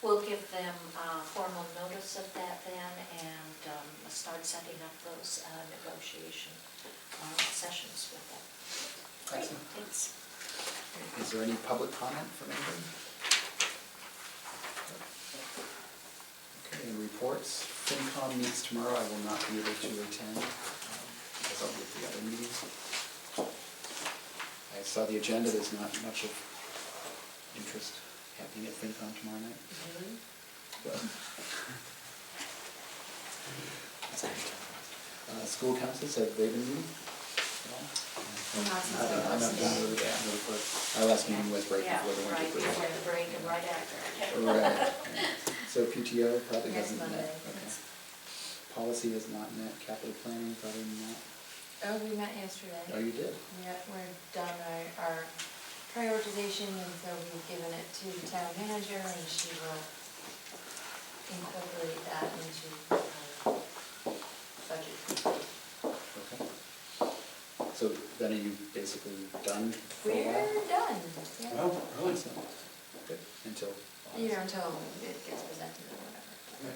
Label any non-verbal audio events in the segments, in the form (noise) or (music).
We'll give them uh, formal notice of that then and um, start setting up those uh, negotiation uh, sessions with them. Excellent. Thanks. Is there any public comment from anybody? Okay, any reports? FinCom meets tomorrow, I will not be able to attend, um, because I'll be at the other meetings. I saw the agenda, there's not much of interest happening at FinCom tomorrow night. but- Uh, School councils, have they been meeting at all? Not since I I don't- I'm not was done there. with it. Our last meeting was right Yeah, before the right, winter break. before the break and right after. Right. So PTO probably Next hasn't Monday, met. Okay. yes. Policy has not met, capital planning probably not. Oh, we met Oh, yesterday. you did? Yeah, we're done our, our prioritization, and so we've given it to the town manager, and she will incorporate that into um, budget. Okay. So then are you basically done for a while? We're done, yeah. Well, really, Excellent. Good, until. You know, until it gets presented or whatever.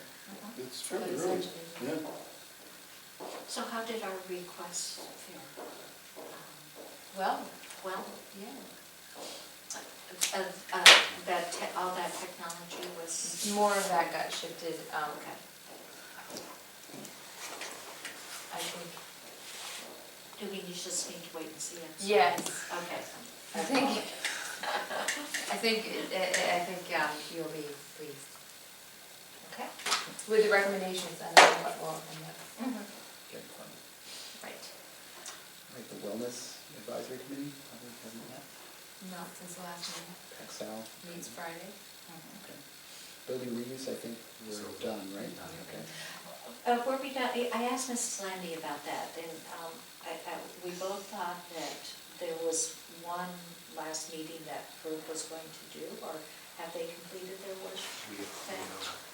it's true, But really. essentially, Yeah, So how did our requests fare? Um, Well, Well, yeah, uh, uh, that, te- all that technology was, more of that got shifted, um, okay. I think, Do we just need to wait and see? I'm sorry. yes, Okay. I think, I think, I- I I think um, you'll be pleased Okay. with the recommendations and what will end up. Mm-hmm. Good point. All Right. right, the wellness advisory committee probably hasn't met. Not since the last meeting, Paxal. meets Friday. Mm-hmm. Okay. Building reuse, I think we're done, right? Okay. Uh, were we done, I I asked Mrs. Landy about that, and, um, I, I, we both thought that there was one last meeting that group was going to do, or have they completed their work?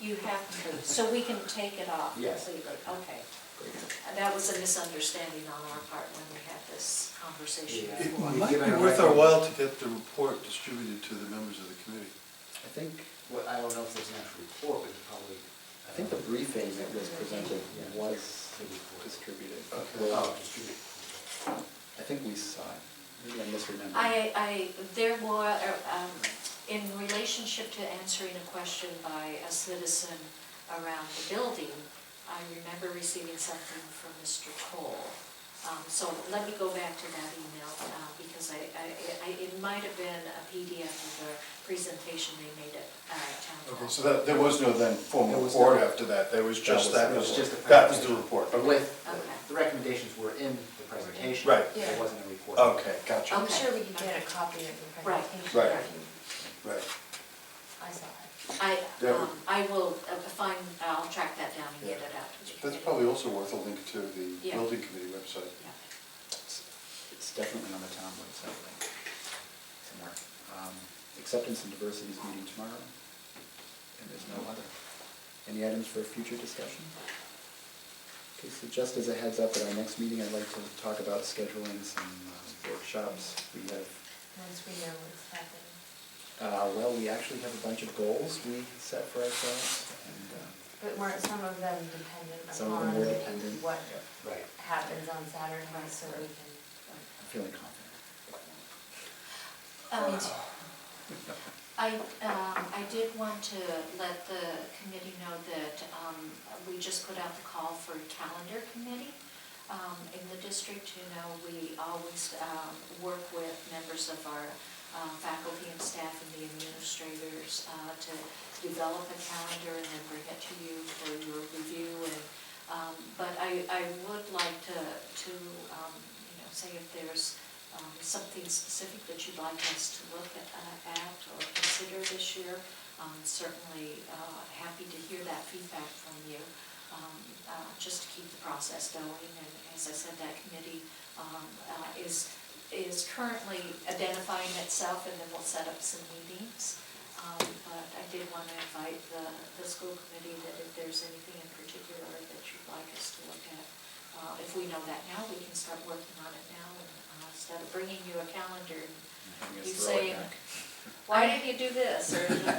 You have to, so we can take it off Yes. completely, okay. Great. And That was a misunderstanding on our part when we had this conversation Yeah. It before. (laughs) might be worth our while to get the report distributed to the members of the committee. I think, Well, I don't know if there's an actual report, but probably. I think the briefing that was presented was distributed. Oh, Well, distributed. I think we saw it. Maybe I misremembered. I, I, there were, um, in relationship to answering a question by a citizen around the building, I remember receiving something from Mr. Cole. Um, so let me go back to that email, uh, because I, I, I- it might have been a PDF of the presentation they made at, uh, town hall. Okay, so that, there was no then There formal was report no- after that, there was That just was- that, it It was just a report. that was the presentation. report, But okay. With, Okay. the recommendations were in the presentation. Right. Yeah. There wasn't a report. Okay, gotcha, I'm Okay. sure we can get a copy of the Right. presentation. Right. if you- right. I saw it. I, Yeah. um, I will uh, find, I'll track that down and get it out. to you. That's probably also worth a link to the Yeah. building committee website. Yeah. It's it's definitely on the town website, like, somewhere. Um, Acceptance and diversity is meeting tomorrow, and there's no other. Any items for future discussion? Okay, so just as a heads up, at our next meeting, I'd like to talk about scheduling some uh, workshops. We have Once we know what's happening. Uh, well, we actually have a bunch of goals we set for ourselves, and uh, But weren't some of them dependent Some of them were upon dependent. what Right. happens on Saturday, so we can, I'm feeling confident. Um, I, um, I did want to let the committee know that um, we just put out the call for calendar committee um, in the district. You know, we always um, work with members of our uh, faculty and staff and the administrators uh, to develop a calendar and then bring it to you for your review. And um, But I, I would like to, to, um, you know, say if there's um, something specific that you'd like us to look at uh, at or consider this year, um, certainly uh, happy to hear that feedback from you, um, uh, just to keep the process going. And as I said, that committee um, uh, is, is currently identifying itself, and then we'll set up some meetings. Um, But I did want to invite the, the school committee that if there's anything in particular that you'd like us to look at, uh, if we know that now, we can start working on it now, and uh, instead of bringing you a calendar, I'm gonna You throw it say- back. why didn't you do this, or